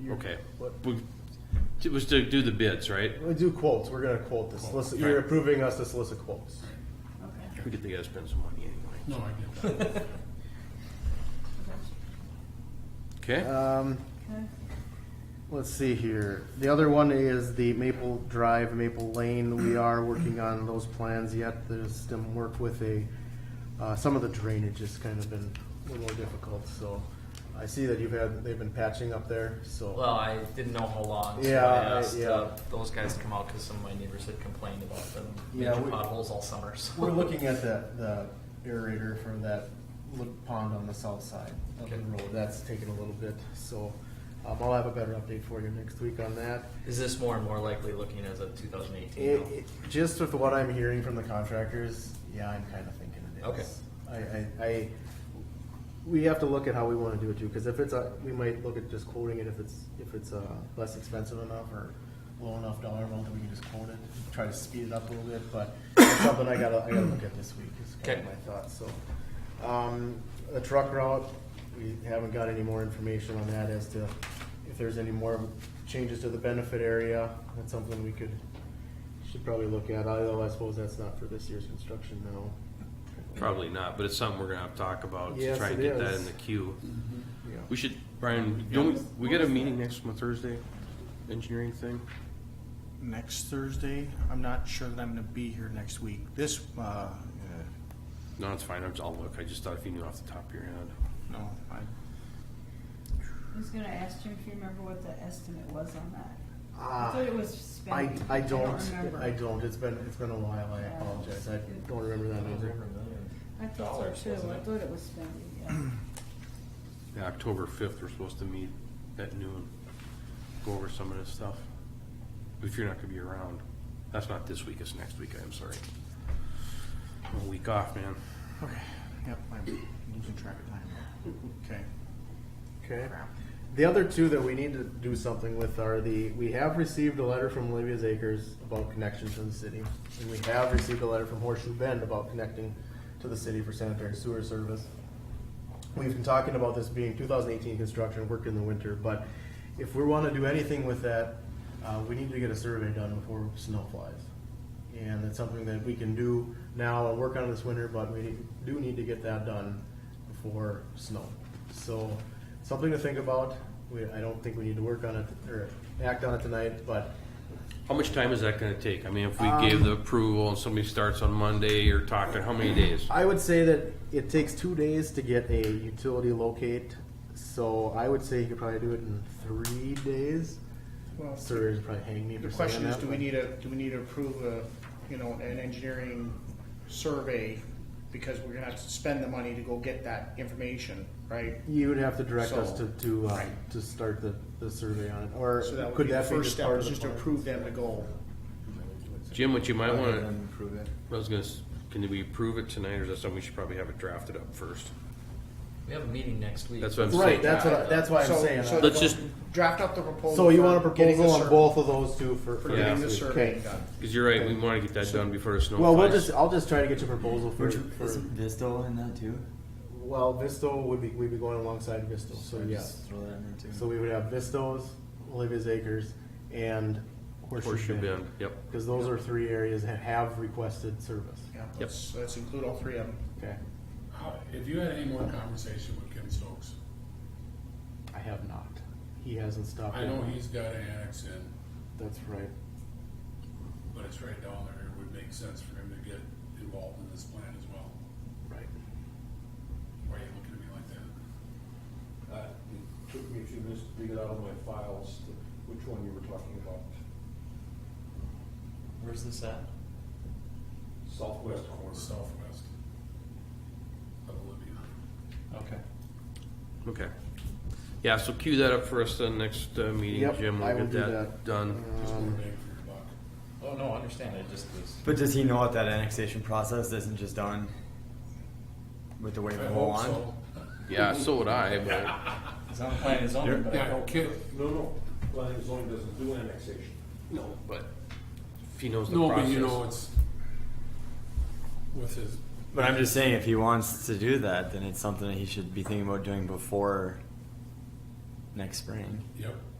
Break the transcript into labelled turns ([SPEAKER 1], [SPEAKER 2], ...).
[SPEAKER 1] You're-
[SPEAKER 2] Okay.
[SPEAKER 1] what-
[SPEAKER 2] We- It was to do the bids, right?
[SPEAKER 1] We do quotes, we're gonna quote this, solicit- you're
[SPEAKER 2] right.
[SPEAKER 1] approving us to solicit quotes.
[SPEAKER 3] Okay.
[SPEAKER 2] We could think I'd spend some money anyway.
[SPEAKER 4] No, I get that.
[SPEAKER 2] Okay,
[SPEAKER 1] Um,
[SPEAKER 3] Okay.
[SPEAKER 1] let's see here, the other one is the Maple Drive, Maple Lane, we are working on those plans yet, there's some work with a, uh, some of the drainage has kind of been a little more difficult, so. I see that you've had, they've been patching up there, so.
[SPEAKER 5] Well, I didn't know how long. So
[SPEAKER 1] Yeah,
[SPEAKER 5] I
[SPEAKER 1] I-
[SPEAKER 5] asked
[SPEAKER 1] yeah.
[SPEAKER 5] uh, those guys to come out because some of my neighbors had complained about them
[SPEAKER 1] Yeah,
[SPEAKER 5] major
[SPEAKER 1] we-
[SPEAKER 5] potholes all summer. So.
[SPEAKER 1] We're looking at the, the aerator for that little pond on the south side of the
[SPEAKER 5] Okay.
[SPEAKER 1] road. That's taking a little bit, so, um, I'll have a better update for you next week on that.
[SPEAKER 5] Is this more and more likely looking as of 2018?
[SPEAKER 1] It,
[SPEAKER 5] now?
[SPEAKER 1] it, just with what I'm hearing from the contractors, yeah, I'm kinda thinking it is.
[SPEAKER 5] Okay.
[SPEAKER 1] I, I, I, we have to look at how we wanna do it too, cause if it's a, we might look at just quoting it if it's, if it's, uh, less expensive enough or low enough dollar amount that we can just quote it, try to speed it up a little bit, but it's something I gotta, I gotta look at this week, is kind of
[SPEAKER 5] Okay.
[SPEAKER 1] my thought, so. Um, a truck route, we haven't got any more information on that as to if there's any more changes to the benefit area, that's something we could, should probably look at, although I suppose that's not for this year's construction now.
[SPEAKER 2] probably not, but it's something we're gonna have to talk about to
[SPEAKER 1] Yes,
[SPEAKER 2] try and
[SPEAKER 1] it
[SPEAKER 2] get that
[SPEAKER 1] is. Mm-hmm.
[SPEAKER 2] in the queue.
[SPEAKER 1] Yeah.
[SPEAKER 2] We should, Brian, don't, we we got a meeting next month, Thursday, engineering thing?
[SPEAKER 6] next Thursday. I'm not sure that I'm gonna be here next week. This, uh, eh,
[SPEAKER 2] No, it's fine, I'm- I'll look, I just thought if you knew off the top of your head.
[SPEAKER 6] no, I,
[SPEAKER 3] I was gonna ask Jim if you remember what the estimate was on that. I
[SPEAKER 1] Ah,
[SPEAKER 3] thought it was
[SPEAKER 1] I,
[SPEAKER 3] spending.
[SPEAKER 1] I don't,
[SPEAKER 3] remember.
[SPEAKER 1] I don't, it's been, it's been a while, I
[SPEAKER 3] Yeah.
[SPEAKER 1] apologize, I don't remember that number.
[SPEAKER 3] I thought so too, I thought it was spending, yeah.
[SPEAKER 2] Yeah, October fifth, we're supposed to meet at noon, go over some of this stuff. If you're not gonna be around, that's not this week, it's next week, I'm sorry. I'm A week off, man.
[SPEAKER 6] okay, yep, I'm losing track of time. Okay.
[SPEAKER 1] Okay.
[SPEAKER 6] Crap.
[SPEAKER 1] The other two that we need to do something with are the, we have received a letter from Olivia's Acres about connection to the city. And we have received a letter from Horseshoe Bend about connecting to the city for sanitary sewer service. We've been talking about this being two thousand eighteen construction, work in the winter, but if we wanna do anything with that, uh, we need to get a survey done before snow flies. And it's something that we can do now and work on this winter, but we do need to get that done before snow. So, something to think about. We, I don't think we need to work on it or act on it tonight, but
[SPEAKER 2] How much time is that gonna take? I mean, if we
[SPEAKER 1] Um,
[SPEAKER 2] gave the approval and somebody starts on Monday, you're talking, how many days?
[SPEAKER 1] I would say that it takes two days to get a utility locate. So I would say you could probably do it in three days.
[SPEAKER 7] Well,
[SPEAKER 1] Surveyors would probably hang me for
[SPEAKER 7] The
[SPEAKER 1] saying
[SPEAKER 7] question is,
[SPEAKER 1] that,
[SPEAKER 7] do we
[SPEAKER 1] but-
[SPEAKER 7] need a, do we need to approve a, you know, an engineering survey? Because we're gonna have to spend the money to go get that information, right?
[SPEAKER 1] You would have to direct us to
[SPEAKER 7] So-
[SPEAKER 1] to uh,
[SPEAKER 7] Right.
[SPEAKER 1] to start the, the survey on it, or
[SPEAKER 7] So that would
[SPEAKER 1] could
[SPEAKER 7] be the
[SPEAKER 1] that be
[SPEAKER 7] first
[SPEAKER 1] just
[SPEAKER 7] step,
[SPEAKER 1] part
[SPEAKER 7] is
[SPEAKER 1] of
[SPEAKER 7] just
[SPEAKER 1] the
[SPEAKER 7] to
[SPEAKER 1] plan?
[SPEAKER 7] approve them to go.
[SPEAKER 2] Jim, what you might wanna,
[SPEAKER 6] Improve it.
[SPEAKER 2] I was gonna, s- can we approve it tonight, or is that something we should probably have it drafted up first?
[SPEAKER 5] We have a meeting next week.
[SPEAKER 2] That's what I'm saying.
[SPEAKER 1] Right, that's what I, that's why I'm
[SPEAKER 7] So-
[SPEAKER 1] saying.
[SPEAKER 7] so
[SPEAKER 1] uh,
[SPEAKER 2] Let's just-
[SPEAKER 7] Draft up the proposal.
[SPEAKER 1] so you want a
[SPEAKER 7] for getting
[SPEAKER 1] proposal
[SPEAKER 7] the
[SPEAKER 1] on
[SPEAKER 7] sur-
[SPEAKER 1] both of those two for, for
[SPEAKER 7] For
[SPEAKER 2] Yeah.
[SPEAKER 7] getting
[SPEAKER 1] next
[SPEAKER 7] the
[SPEAKER 1] week.
[SPEAKER 7] survey
[SPEAKER 1] Okay.
[SPEAKER 7] done.
[SPEAKER 2] Cause you're right, we wanna get that done before the snow flies.
[SPEAKER 1] Well, we'll just I'll just try to get your proposal for. for
[SPEAKER 8] Isn't Vistal in that too?
[SPEAKER 1] well, Visto would be we'd be going alongside Visto, so
[SPEAKER 8] Or
[SPEAKER 1] yes.
[SPEAKER 8] Just throw that in there too.
[SPEAKER 1] So we would have Vistos, Olivia's Acres, and
[SPEAKER 2] Horseshoe
[SPEAKER 1] Horseshoe
[SPEAKER 2] Bend,
[SPEAKER 1] Bend.
[SPEAKER 2] yep.
[SPEAKER 1] Because those are three areas that have requested service.
[SPEAKER 7] Yeah, let's, let's include all three of them.
[SPEAKER 1] Okay,
[SPEAKER 4] How- If you had any more conversation with Ken Stokes,
[SPEAKER 1] I have not. He hasn't stopped.
[SPEAKER 4] I know
[SPEAKER 1] yet.
[SPEAKER 4] he's got an annex in,
[SPEAKER 1] That's right.
[SPEAKER 4] but it's right down there, it would make sense for him to get involved in this plan as well.
[SPEAKER 1] Right.
[SPEAKER 4] Why are you looking at me like that?
[SPEAKER 9] Uh, It took me a few minutes to dig it out of my files, to- which one you were talking about.
[SPEAKER 8] Where's this at?
[SPEAKER 9] Southwest corner.
[SPEAKER 4] Southwest of Olivia.
[SPEAKER 8] Okay.
[SPEAKER 2] Okay. Yeah, so cue that up for us then next uh, meeting,
[SPEAKER 1] Yep,
[SPEAKER 2] Jim.
[SPEAKER 1] I
[SPEAKER 2] We'll
[SPEAKER 1] will
[SPEAKER 2] get
[SPEAKER 1] do
[SPEAKER 2] that
[SPEAKER 1] that. Um,
[SPEAKER 2] done.
[SPEAKER 4] Just more bang for your
[SPEAKER 5] Oh
[SPEAKER 4] buck.
[SPEAKER 5] no, I understand. I just was.
[SPEAKER 8] But does he know that that annexation process isn't just done with the wave
[SPEAKER 4] I
[SPEAKER 8] of whole
[SPEAKER 4] hope
[SPEAKER 8] wand?
[SPEAKER 4] so.
[SPEAKER 2] Yeah, so would I, but
[SPEAKER 5] It's not planning his own, but I
[SPEAKER 4] Yeah,
[SPEAKER 5] hope.
[SPEAKER 4] Ken,
[SPEAKER 9] No, no, planning and zoning doesn't do annexation.
[SPEAKER 2] no, but if he knows the
[SPEAKER 4] no, but
[SPEAKER 2] process.
[SPEAKER 4] you know, it's with his,
[SPEAKER 8] But I'm just saying, if he wants to do that, then it's something that he should be thinking about doing before next spring.
[SPEAKER 4] yep.